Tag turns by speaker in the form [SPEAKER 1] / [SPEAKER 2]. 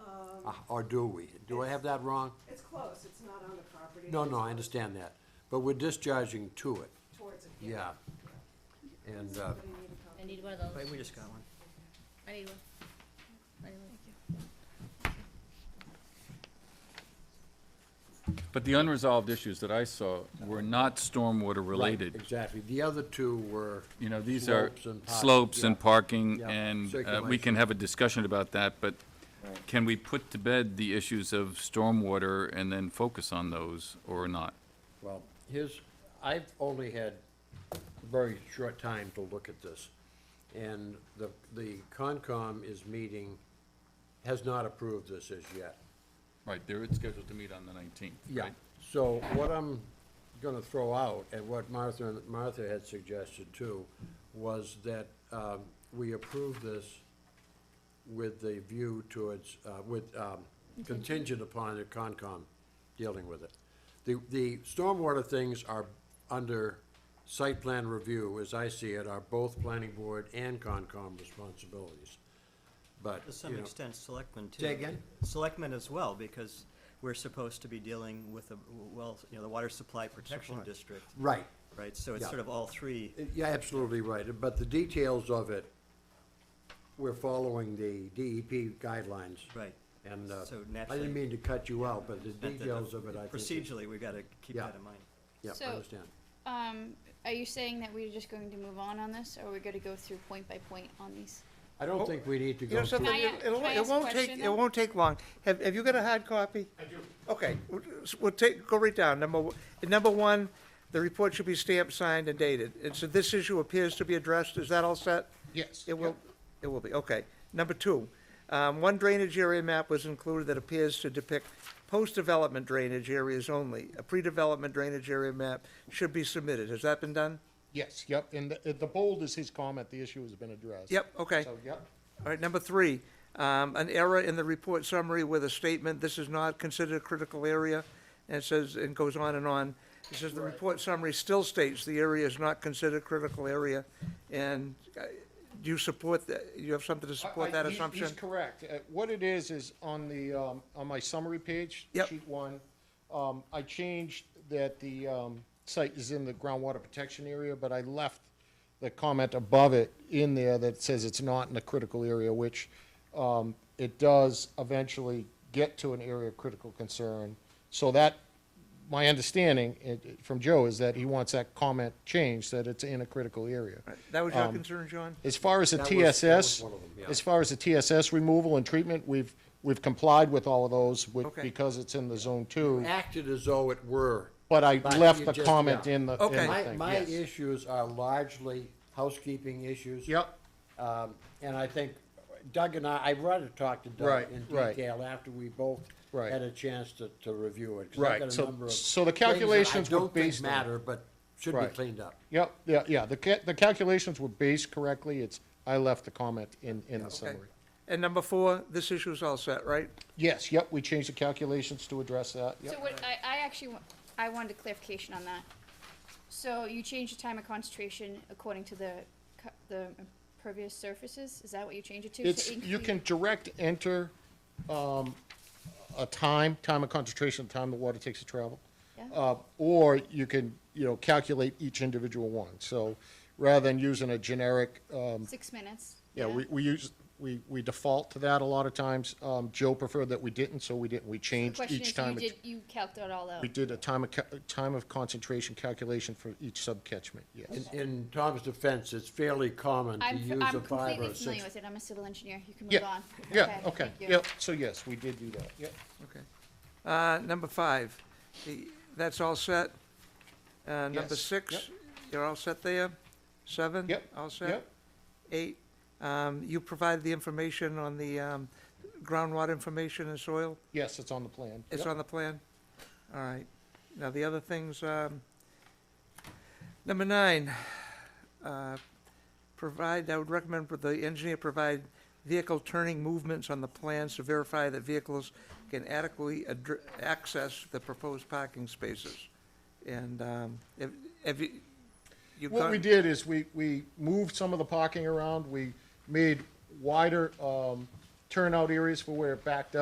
[SPEAKER 1] Uh, or do we? Do I have that wrong?
[SPEAKER 2] It's close, it's not on the property.
[SPEAKER 1] No, no, I understand that, but we're discharging to it,
[SPEAKER 2] Towards it.
[SPEAKER 1] yeah. And, uh,
[SPEAKER 2] Somebody need a
[SPEAKER 3] I
[SPEAKER 2] copy.
[SPEAKER 3] need one of those.
[SPEAKER 4] Wait, we just got one.
[SPEAKER 3] I need one. I need one.
[SPEAKER 5] But the unresolved issues that I saw were not stormwater
[SPEAKER 1] right,
[SPEAKER 5] related.
[SPEAKER 1] Exactly, the other two were.
[SPEAKER 5] You know, these are
[SPEAKER 1] Slopes and parking,
[SPEAKER 5] slopes and
[SPEAKER 1] yeah.
[SPEAKER 5] parking,
[SPEAKER 1] Yeah,
[SPEAKER 5] and uh, we
[SPEAKER 1] circulation.
[SPEAKER 5] can have a discussion about that, but can we put to bed the issues of stormwater and then focus on those or not?
[SPEAKER 1] Well, here's, I've only had a very short time to look at this. And the, the Concom is meeting, has not approved this as yet.
[SPEAKER 5] Right, they're scheduled to meet on the 19th,
[SPEAKER 1] Yeah, so what I'm gonna throw out, and what Martha, and Martha had suggested too, was that, um, we approve this with the view towards, uh, with, um, contingent upon the Concom dealing with it. The, the stormwater things are under site plan review, as I see it, are both planning board and Concom responsibilities. But,
[SPEAKER 4] To
[SPEAKER 1] you
[SPEAKER 4] some
[SPEAKER 1] know,
[SPEAKER 4] extent, selectmen too.
[SPEAKER 1] Say again?
[SPEAKER 4] Selectmen as well, because we're supposed to be dealing with the, well, you know, the Water Supply Protection District,
[SPEAKER 1] right,
[SPEAKER 4] right? So it's
[SPEAKER 1] Yeah.
[SPEAKER 4] sort of all three.
[SPEAKER 1] Yeah, absolutely right, but the details of it, we're following the DEP guidelines.
[SPEAKER 4] Right.
[SPEAKER 1] And, uh,
[SPEAKER 4] So
[SPEAKER 1] I
[SPEAKER 4] naturally-
[SPEAKER 1] didn't mean to cut you out, but the
[SPEAKER 4] that the-
[SPEAKER 1] details of it, I think. is-
[SPEAKER 4] Procedurally, we gotta keep
[SPEAKER 1] Yeah.
[SPEAKER 4] that in mind.
[SPEAKER 1] Yeah, I
[SPEAKER 6] So-
[SPEAKER 1] understand.
[SPEAKER 6] Um, are you saying that we're just going to move on on this, or we're gonna go through point by point on these?
[SPEAKER 1] I don't think we need to
[SPEAKER 7] You
[SPEAKER 1] go
[SPEAKER 7] know
[SPEAKER 1] through.
[SPEAKER 7] something,
[SPEAKER 6] I-
[SPEAKER 7] it
[SPEAKER 6] can I ask
[SPEAKER 7] it
[SPEAKER 6] a
[SPEAKER 7] won't take,
[SPEAKER 6] question,
[SPEAKER 7] it
[SPEAKER 6] though?
[SPEAKER 7] won't take long. Have, have you got a hard copy? I do. Okay, we'll- we'll take, go right down. Number, o- number one, the report should be stamped, signed, and dated. And so this issue appears to be addressed. Is that all set?
[SPEAKER 8] Yes.
[SPEAKER 7] It will, it will be, okay. Number two, um, one drainage area map was included that appears to depict post-development drainage areas only. A pre-development drainage area map should be submitted. Has that been done?
[SPEAKER 8] Yes, yep, and the, the bold is his comment, the issue has been addressed.
[SPEAKER 7] Yep, okay.
[SPEAKER 8] So, yep.
[SPEAKER 7] All right, number three, um, an error in the report summary with a statement, this is not considered a critical area, and it says, and goes on and on. It says the report summary still states the area is not considered critical area, and uh, do you support that, you have something to
[SPEAKER 8] I-
[SPEAKER 7] support
[SPEAKER 8] I-
[SPEAKER 7] that
[SPEAKER 8] he-
[SPEAKER 7] assumption?
[SPEAKER 8] He's correct. Uh, What it is, is on the, um, on my summary page.
[SPEAKER 7] Yep.
[SPEAKER 8] Sheet one, um, I changed that the, um, site is in the groundwater protection area, but I left the comment above it in there that says it's not in a critical area, which, um, it does eventually get to an area of critical concern. So that, my understanding it- it- from Joe is that he wants that comment changed, that it's in a critical area.
[SPEAKER 7] That was your
[SPEAKER 8] Um,
[SPEAKER 7] concern, John?
[SPEAKER 8] As far as the
[SPEAKER 1] That was- that was
[SPEAKER 8] TSS,
[SPEAKER 1] one of them, yeah.
[SPEAKER 8] as far as the TSS removal and treatment, we've, we've complied with all of those with,
[SPEAKER 7] Okay.
[SPEAKER 8] because it's in the zone two.
[SPEAKER 1] Acted as though it were.
[SPEAKER 8] But I
[SPEAKER 1] But
[SPEAKER 8] left
[SPEAKER 1] you
[SPEAKER 8] the
[SPEAKER 1] just-
[SPEAKER 8] comment
[SPEAKER 1] yeah.
[SPEAKER 8] in the, in
[SPEAKER 7] Okay.
[SPEAKER 8] the
[SPEAKER 1] My,
[SPEAKER 8] thing,
[SPEAKER 1] my
[SPEAKER 8] yes.
[SPEAKER 1] issues are largely housekeeping issues.
[SPEAKER 8] Yep,
[SPEAKER 1] Um, and I think Doug and I, I rather talk to Doug
[SPEAKER 8] Right,
[SPEAKER 1] in
[SPEAKER 8] right.
[SPEAKER 1] detail after we both
[SPEAKER 8] Right.
[SPEAKER 1] had a chance to, to review it. 'cause I've
[SPEAKER 8] Right,
[SPEAKER 1] got a
[SPEAKER 8] so-
[SPEAKER 1] number of
[SPEAKER 8] so the
[SPEAKER 1] things that I
[SPEAKER 8] calculations were
[SPEAKER 1] don't think
[SPEAKER 8] based on-
[SPEAKER 1] Matter, but should be
[SPEAKER 8] Right.
[SPEAKER 1] cleaned up.
[SPEAKER 8] yep, yeah, yeah. The ca- the calculations were based correctly. It's, I left the comment in, in the
[SPEAKER 7] Okay.
[SPEAKER 8] summary.
[SPEAKER 7] And number four, this issue is all set, right?
[SPEAKER 8] Yes, yep, we changed the calculations to address that,
[SPEAKER 6] So
[SPEAKER 8] yep.
[SPEAKER 6] what, I, I actually, wa- I wanted clarification on that. So you changed the time of concentration according to the, co- the impervious surfaces, is that what you changed it to? to
[SPEAKER 8] It's, you
[SPEAKER 6] include-
[SPEAKER 8] can direct enter, um, a time, time of concentration, time the water takes to travel.
[SPEAKER 6] Yeah.
[SPEAKER 8] Uh, or you can, you know, calculate each individual one. So rather than using a generic, um,
[SPEAKER 6] Six minutes?
[SPEAKER 8] yeah, we, we use, we, we default to that a lot of times. Um, Joe preferred that we didn't, so we didn't, we
[SPEAKER 6] The
[SPEAKER 8] changed
[SPEAKER 6] question
[SPEAKER 8] each
[SPEAKER 6] is,
[SPEAKER 8] time.
[SPEAKER 6] you
[SPEAKER 8] it-
[SPEAKER 6] did, oh. you calculated it all out.
[SPEAKER 8] We did a time of, ca- time of concentration calculation for each subcatchment, yes.
[SPEAKER 1] In, in Tom's defense, it's fairly common to
[SPEAKER 6] I'm, f-
[SPEAKER 1] use
[SPEAKER 6] I'm
[SPEAKER 1] a five or
[SPEAKER 6] completely
[SPEAKER 1] a
[SPEAKER 6] familiar
[SPEAKER 1] six.
[SPEAKER 6] with it, I'm a civil engineer, you can move
[SPEAKER 8] Yeah,
[SPEAKER 6] on.
[SPEAKER 8] yeah, okay,
[SPEAKER 6] thank you.
[SPEAKER 8] yeah, so yes, we did do that, yeah.
[SPEAKER 7] Okay. Uh, number five, the, that's all set? Uh, number
[SPEAKER 8] Yes,
[SPEAKER 7] six,
[SPEAKER 8] yep.
[SPEAKER 7] you're all set there? Seven?
[SPEAKER 8] Yep,
[SPEAKER 7] All set?
[SPEAKER 8] yep.
[SPEAKER 7] Eight, um, you provided the information on the, um, groundwater information and soil?
[SPEAKER 8] Yes, it's on the plan.
[SPEAKER 7] It's
[SPEAKER 8] Yep.
[SPEAKER 7] on the plan? All right. Now, the other things, um, number nine, uh, provide, I would recommend that the engineer provide vehicle turning movements on the plans to verify that vehicles can adequately addr- access the proposed parking spaces. And, um, if, if you, you've
[SPEAKER 8] What we
[SPEAKER 7] gone-
[SPEAKER 8] did is we, we moved some of the parking around, we made wider, um, turnout areas for where it backed up.